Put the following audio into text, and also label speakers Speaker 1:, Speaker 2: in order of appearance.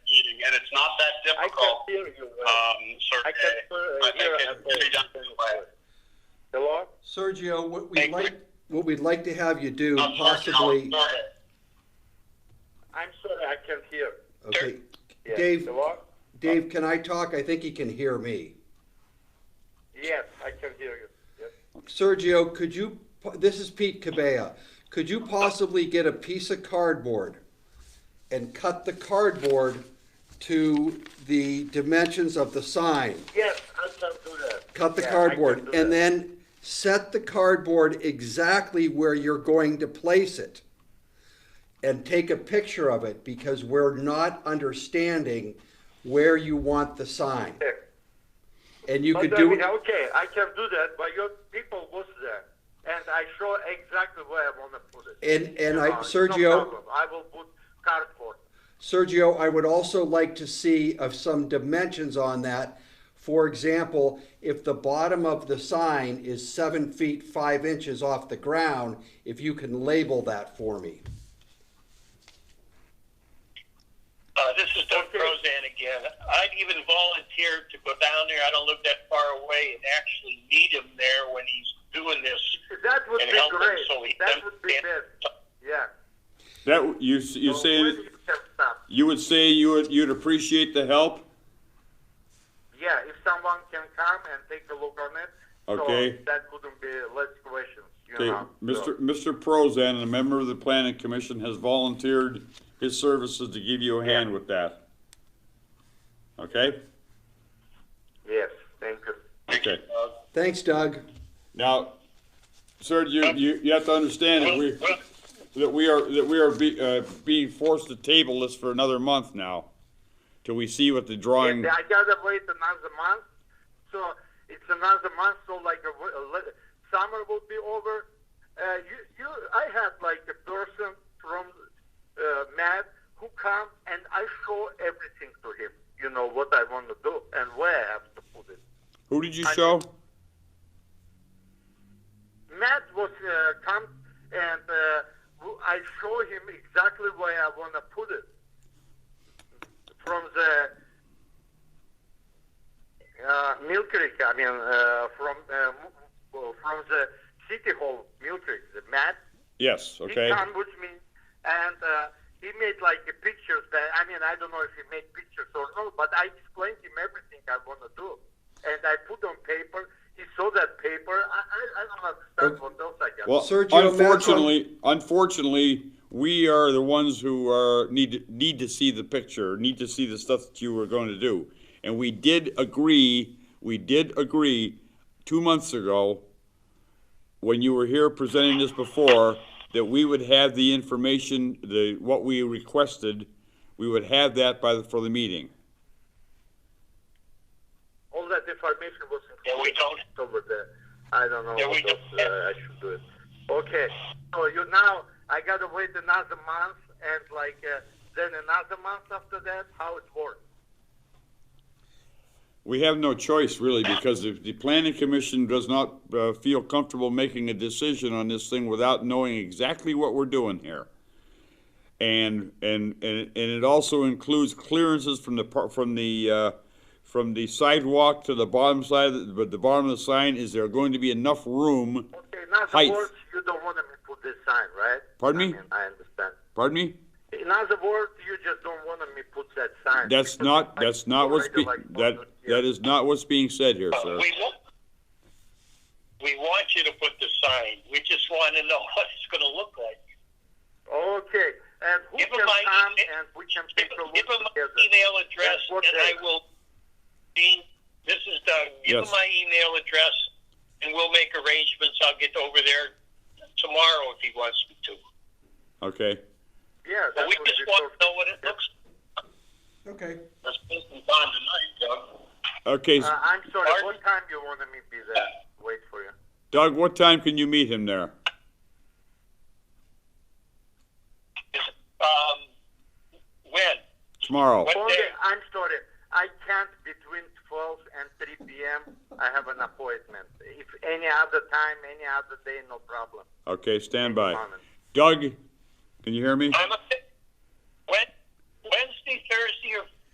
Speaker 1: I can't
Speaker 2: difficult,
Speaker 1: hear you well.
Speaker 2: um,
Speaker 1: I
Speaker 2: Sergey.
Speaker 1: can't hear, uh,
Speaker 2: I
Speaker 1: hear
Speaker 2: think
Speaker 1: at
Speaker 2: it should be done
Speaker 1: all.
Speaker 2: this way.
Speaker 1: Hello?
Speaker 3: Sergio, what
Speaker 2: Thank
Speaker 3: we'd
Speaker 2: you.
Speaker 3: like, what we'd like to have you do
Speaker 2: I'm sorry,
Speaker 3: possibly,
Speaker 2: no, sorry.
Speaker 1: I'm sorry, I can't hear.
Speaker 3: okay,
Speaker 1: Yes.
Speaker 3: Dave.
Speaker 2: Uh,
Speaker 1: Hello?
Speaker 3: Dave, can I talk? I think he can hear me.
Speaker 1: Yes, I can hear you. Yes.
Speaker 3: Sergio, could you, this is Pete Cabea. Could you possibly get a piece of cardboard and cut the cardboard to the dimensions of the sign?
Speaker 1: Yes, I can do that.
Speaker 3: Cut the
Speaker 1: Yeah, I can
Speaker 3: cardboard
Speaker 1: do
Speaker 3: and
Speaker 1: that.
Speaker 3: then set the cardboard exactly where you're going to place it. And take a picture of it because we're not understanding where you want the sign.
Speaker 1: Okay.
Speaker 3: And you
Speaker 1: But
Speaker 3: could
Speaker 1: I
Speaker 3: do
Speaker 1: mean,
Speaker 3: it.
Speaker 1: okay, I can do that, but your people was there, and I show exactly where I want to put it.
Speaker 3: And, and
Speaker 1: You
Speaker 3: I,
Speaker 1: know, it's no
Speaker 3: Sergio,
Speaker 1: problem. I will put cardboard.
Speaker 3: Sergio, I would also like to see of some dimensions on that. For example, if the bottom of the sign is seven feet, five inches off the ground, if you can label that for me.
Speaker 2: Uh, this is Doug Prozan again. I'd even volunteer to go down there. I don't live that far away and actually meet him there when he's doing this.
Speaker 1: That would
Speaker 2: And
Speaker 1: be
Speaker 2: help them
Speaker 1: great.
Speaker 2: so he
Speaker 1: that would be
Speaker 2: understands. Uh,
Speaker 1: best. Yeah.
Speaker 4: That you you
Speaker 1: So
Speaker 4: say
Speaker 1: when you can stop.
Speaker 4: you would say you would you'd appreciate the help.
Speaker 1: Yeah, if someone can come and take a look on it.
Speaker 4: Okay.
Speaker 1: So that wouldn't be less questions. You
Speaker 4: Okay,
Speaker 1: know.
Speaker 4: Mr. Mr. Prozan, a member of the Planning Commission, has volunteered his services to give you a hand with that. Okay.
Speaker 1: Yes. Thank you.
Speaker 4: Okay.
Speaker 3: Thanks, Doug.
Speaker 4: Now, sir, you you, you have to understand that we that we are that we are be, uh, being forced to table this for another month now, till we see what the drawing.
Speaker 1: Yeah, I gotta wait another month. So it's another month. So like a, w- a li- summer will be over. Uh, you, you, I had like a person from uh, Matt who come and I show everything to him. You know what I want to do and where I have to put it.
Speaker 4: Who did you show?
Speaker 1: Matt was uh, come and uh, w- I show him exactly where I want to put it from the uh, Mill Creek. I mean, uh, from uh, m- well, from the city hall, Mill Creek. The Matt
Speaker 4: Yes. Okay.
Speaker 1: he come with me and uh, he made like a pictures that I mean I don't know if he made pictures or not, but I explained him everything I want to do, and I put on paper. He saw that paper. I I, I don't understand what else I got.
Speaker 4: Well,
Speaker 3: Sergio Mattson-
Speaker 4: unfortunately, unfortunately, we are the ones who are need to, need to see the picture, need to see the stuff that you were going to do, and we did agree. We did agree two months ago, when you were here presenting this before, that we would have the information, the what we requested, we would have that by the, for the meeting.
Speaker 1: All that information was
Speaker 2: Yeah, we don't.
Speaker 1: over there. I don't know
Speaker 2: Yeah, we
Speaker 1: what else
Speaker 2: don't-
Speaker 1: uh, I should do it. Okay, so you now I gotta wait another month and like uh, then another month after that. How it works?
Speaker 4: We have no choice, really, because if the planning commission does not uh, feel comfortable making a decision on this thing without knowing exactly what we're doing here. And, and, and and it also includes clearances from the, par- from the, uh, from the sidewalk to the bottom side, but the bottom of the sign, is there going to be enough room?
Speaker 1: Okay, in other
Speaker 4: Height.
Speaker 1: words, you don't want me to put this sign, right?
Speaker 4: Pardon
Speaker 1: I
Speaker 4: me?
Speaker 1: mean, I understand.
Speaker 4: Pardon me?
Speaker 1: In other words, you just don't want me put that sign.
Speaker 4: That's
Speaker 1: Because
Speaker 4: not,
Speaker 1: I
Speaker 4: that's not what's,
Speaker 1: already
Speaker 4: be-
Speaker 1: like
Speaker 4: that,
Speaker 1: put it
Speaker 4: that
Speaker 1: here.
Speaker 4: is not what's being said here,
Speaker 2: Uh,
Speaker 4: sir.
Speaker 2: we want we want you to put the sign. We just want to know what it's going to look like.
Speaker 1: Okay, and who
Speaker 2: Give
Speaker 1: can
Speaker 2: him my
Speaker 1: come
Speaker 2: email-
Speaker 1: and we can
Speaker 2: Give,
Speaker 1: take a look
Speaker 2: give him my
Speaker 1: together?
Speaker 2: email address,
Speaker 1: Yes,
Speaker 2: and
Speaker 1: okay.
Speaker 2: I will. Dean, this is Doug. Give
Speaker 4: Yes.
Speaker 2: him my email address, and we'll make arrangements. I'll get over there tomorrow if he wants me to.
Speaker 4: Okay,
Speaker 1: Yeah,
Speaker 2: But
Speaker 1: that
Speaker 2: we
Speaker 1: would
Speaker 2: just
Speaker 1: be
Speaker 2: want
Speaker 1: perfect.
Speaker 2: to know what it looks.
Speaker 3: Okay.
Speaker 2: Let's put some on tonight, Doug.
Speaker 4: okay, s-
Speaker 1: Uh, I'm sorry.
Speaker 2: Pardon?
Speaker 1: What time you want me be there? Wait for you.
Speaker 4: Doug, what time can you meet him there?
Speaker 2: Um, when?
Speaker 4: Tomorrow?
Speaker 2: What
Speaker 1: Only,
Speaker 2: day?
Speaker 1: I'm sorry. I can't between 12 and 3 p.m. I have an appointment. If any other time, any other day, no problem.
Speaker 4: Okay, stand by.
Speaker 1: Comment.
Speaker 4: Doug, can you hear me?
Speaker 2: I'm a, when, Wednesday, Thursday, or